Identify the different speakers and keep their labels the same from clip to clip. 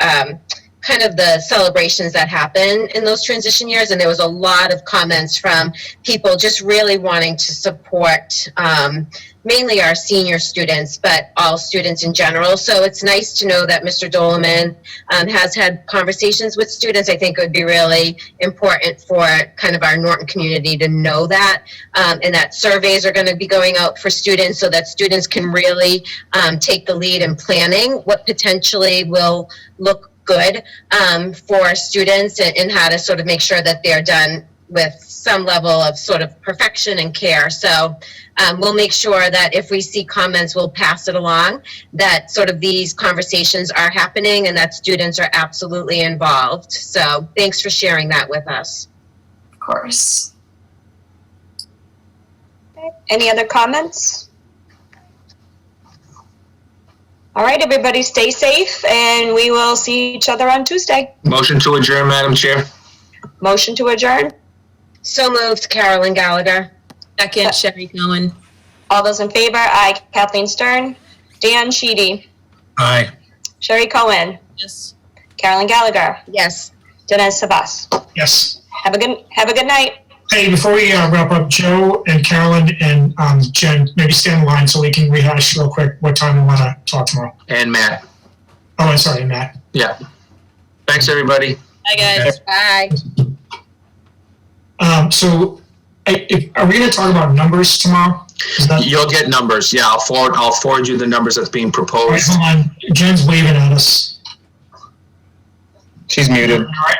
Speaker 1: um, kind of the celebrations that happen in those transition years. And there was a lot of comments from people just really wanting to support um, mainly our senior students, but all students in general. So it's nice to know that Mr. Doleman um, has had conversations with students. I think it would be really important for kind of our Norton community to know that um, and that surveys are going to be going out for students so that students can really um, take the lead in planning what potentially will look good um, for students and, and how to sort of make sure that they're done with some level of sort of perfection and care. So um, we'll make sure that if we see comments, we'll pass it along, that sort of these conversations are happening and that students are absolutely involved. So thanks for sharing that with us.
Speaker 2: Of course.
Speaker 3: Any other comments? All right, everybody, stay safe, and we will see each other on Tuesday.
Speaker 4: Motion to adjourn, Madam Chair.
Speaker 3: Motion to adjourn.
Speaker 1: So moved, Carolyn Gallagher.
Speaker 2: Second, Sherry Cohen.
Speaker 3: All those in favor? Aye. Kathleen Stern, Dan Sheedy,
Speaker 4: Aye.
Speaker 3: Sherry Cohen,
Speaker 2: Yes.
Speaker 3: Carolyn Gallagher,
Speaker 1: Yes.
Speaker 3: Dinesh Savas.
Speaker 5: Yes.
Speaker 3: Have a good Have a good night.
Speaker 5: Hey, before we uh, wrap up, Joe and Carolyn and um, Jen, maybe stay in line so we can rehash real quick what time we want to talk tomorrow.
Speaker 4: And Matt.
Speaker 5: Oh, and sorry, Matt.
Speaker 4: Yeah. Thanks, everybody.
Speaker 2: Hi, guys.
Speaker 1: Bye.
Speaker 5: Um, so, I, if, are we going to talk about numbers tomorrow? Is that,
Speaker 4: You'll get numbers. Yeah, I'll forward, I'll forward you the numbers that's being
Speaker 5: All right,
Speaker 4: proposed.
Speaker 5: hold on. Jen's waving at us.
Speaker 6: She's muted.
Speaker 5: All right.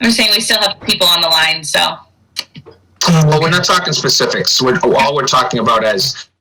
Speaker 7: I'm saying we still have people on the line, so.
Speaker 5: Um,
Speaker 4: Well, we're not talking specifics. We're, all we're talking about is